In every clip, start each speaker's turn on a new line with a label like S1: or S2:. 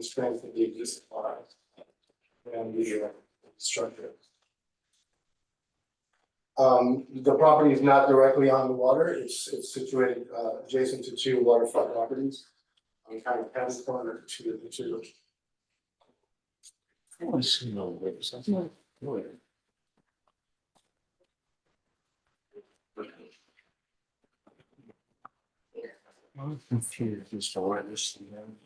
S1: strengthen the existing lines and the uh, structure. Um, the property is not directly on the water, it's, it's situated, uh, adjacent to two waterfront properties. On kind of past corner to, to,
S2: I want to see no waves. That's not good. I'm confused as to where this is. going.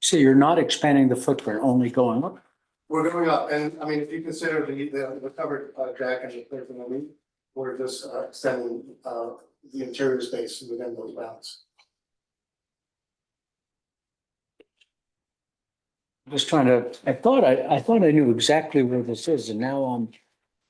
S3: So you're not expanding the footprint, only going up?
S1: we're going up, and I mean, if you consider the, the, the covered, uh, deck and the clear from the lead, we're just uh, extending, uh, the interior space within those bounds.
S3: Just trying to, I thought, I, I thought I knew exactly where this is and now I'm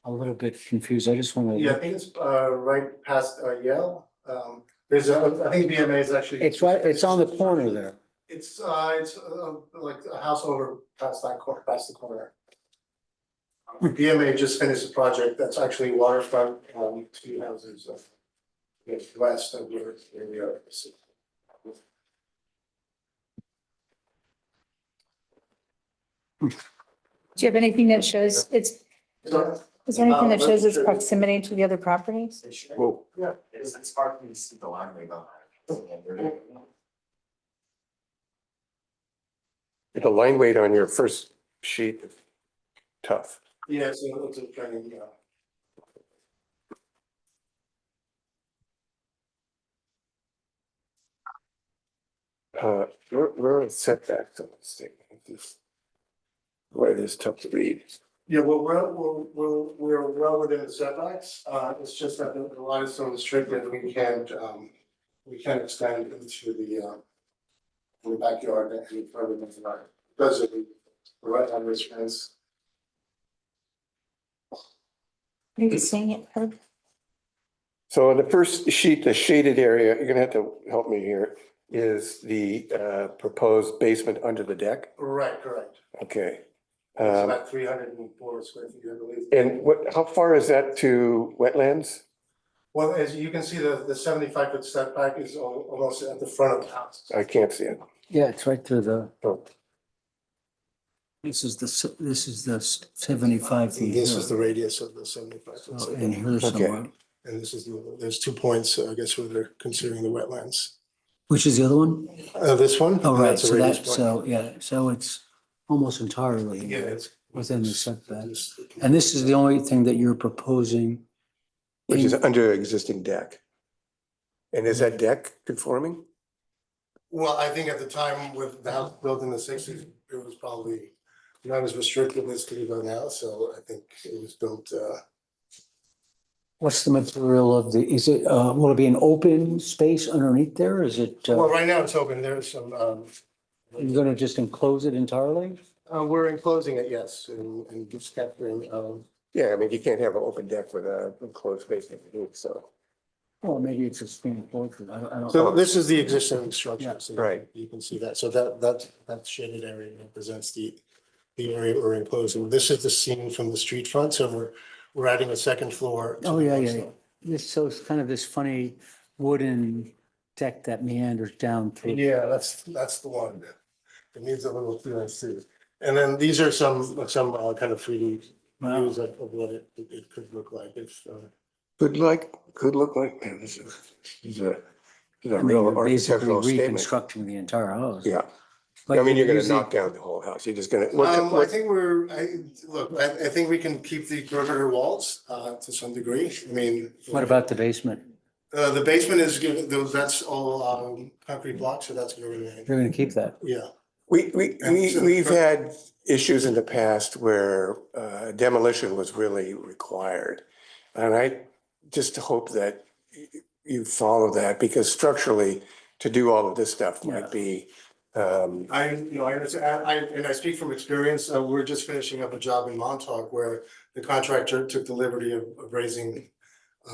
S3: a little bit confused. I just want
S1: Yeah, I
S3: to.
S1: think it's, uh, right past uh, Yale, um, there's a, I think BMA is actually.
S3: It's right, it's on the corner there.
S1: It's, uh, it's, uh, like a house over past that corner, past the corner. BMA just finished a project that's actually waterfront, um, two houses, uh, west of where, where we are. So
S4: Do you have anything that shows it's, is there anything that shows its proximity to the other properties?
S2: Whoa.
S1: Yeah.
S2: It is, it's hard for me to see the line right behind.
S5: The line weight on your first sheet, is tough.
S1: Yeah, so it's a training, yeah.
S5: Uh, where, where are the setbacks on this thing? This- Why it is tough to read.
S1: Yeah, well, we're, we're, we're, we're well within the setbacks, uh, it's just that the the line is so restricted, we can't, um, we can't extend into the, uh, in the backyard any further than that, because of the the right on this fence.
S4: Are you seeing it? Herb?
S5: So on the first sheet, the shaded area, you're gonna have to help me here, is the uh, proposed basement under the deck.
S1: Right, correct,
S5: Okay.
S1: it's
S5: Um,
S1: about three hundred and four square feet, I believe.
S5: And what, how far is that to wetlands?
S1: Well, as you can see, the, the seventy-five foot setback is al- almost at the front of the house.
S5: I can't see it.
S3: Yeah, it's right through the.
S5: Oh,
S3: This is the, s- this is the s- seventy-five feet here. So
S1: radius of the seventy-five foot
S3: In here somewhere.
S1: And this is, the- there's two points, uh, I guess, where they're considering the wetlands.
S3: Which is the other one?
S1: Uh, this one?
S3: Oh, right,
S1: That's a
S3: so
S1: radius
S3: that,
S1: point.
S3: so, yeah, so it's almost entirely
S1: Yeah, it's.
S3: within the setback.
S1: it's-
S3: And this is the only thing that you're proposing.
S5: Which is under existing deck. And is that deck conforming?
S1: Well, I think at the time with the house built in the sixties, it was probably not as restrictive as could go now, so I think it was built, uh,
S3: What's the material of the, is it, uh, will it be an open space underneath there? Is it,
S1: well,
S3: uh,
S1: right now it's open, there's some, um,
S3: you're gonna just enclose it entirely?
S1: uh, we're enclosing it, yes, and, and just capturing, um,
S5: Yeah, I mean, you can't have an open deck with a enclosed basement, so.
S3: Well, maybe it's a screen portrait. I don't, I don't.
S1: so this is the existing structure,
S3: Yeah.
S1: so
S5: Right.
S1: you can see that, so that, that, that shaded area represents the, the area we're enclosing, this is the scene from the street front, so we're, we're adding a second floor. to
S3: Oh,
S1: the
S3: yeah,
S1: front
S3: yeah,
S1: store.
S3: yeah. This, so it's kind of this funny wooden deck that meanders down through.
S1: Yeah, that's, that's the one. It needs a little clearance too. And then these are some, some uh, kind of three D
S3: Wow.
S1: views of of what it, it- it could look like if, uh,
S5: Could like, could look like, man, this is, this is a, this is
S3: I
S5: a
S3: mean,
S5: real
S3: you're basically
S5: architectural statement.
S3: reconstructing the entire house.
S5: Yeah,
S3: But
S5: I mean, you're gonna
S3: using-
S5: knock down the whole house, you're just gonna, what-
S1: Um, I
S5: what-
S1: think we're, I, look, I, I think we can keep the perimeter walls, uh, to some degree. I mean.
S3: What about the basement?
S1: Uh, the basement is, given- those, that's all, um, concrete blocks, so that's gonna remain,
S3: You're gonna keep that?
S1: yeah.
S5: we, we,
S1: Yeah,
S5: we,
S1: so-
S5: we've had issues in the past where uh, demolition was really required. And I just hope that y- you follow that, because structurally, to do all of this stuff
S3: Yeah.
S5: might be, um,
S1: I, you know, I understand, I, and I speak from experience, uh, we're just finishing up a job in Montauk where the contractor took the liberty of of raising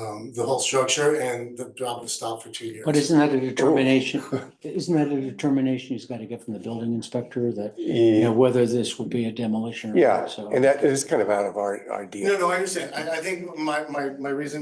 S1: um, the whole structure and the job was stopped for two years.
S3: But isn't
S5: Oh.
S3: that a determination, isn't that a determination he's gotta get from the building inspector that, you know, whether this would be a demolition or
S5: yeah,
S3: not, so.
S5: and that is kind of out of our, our deal.
S1: No, no, I understand. I, I think my, my, my reason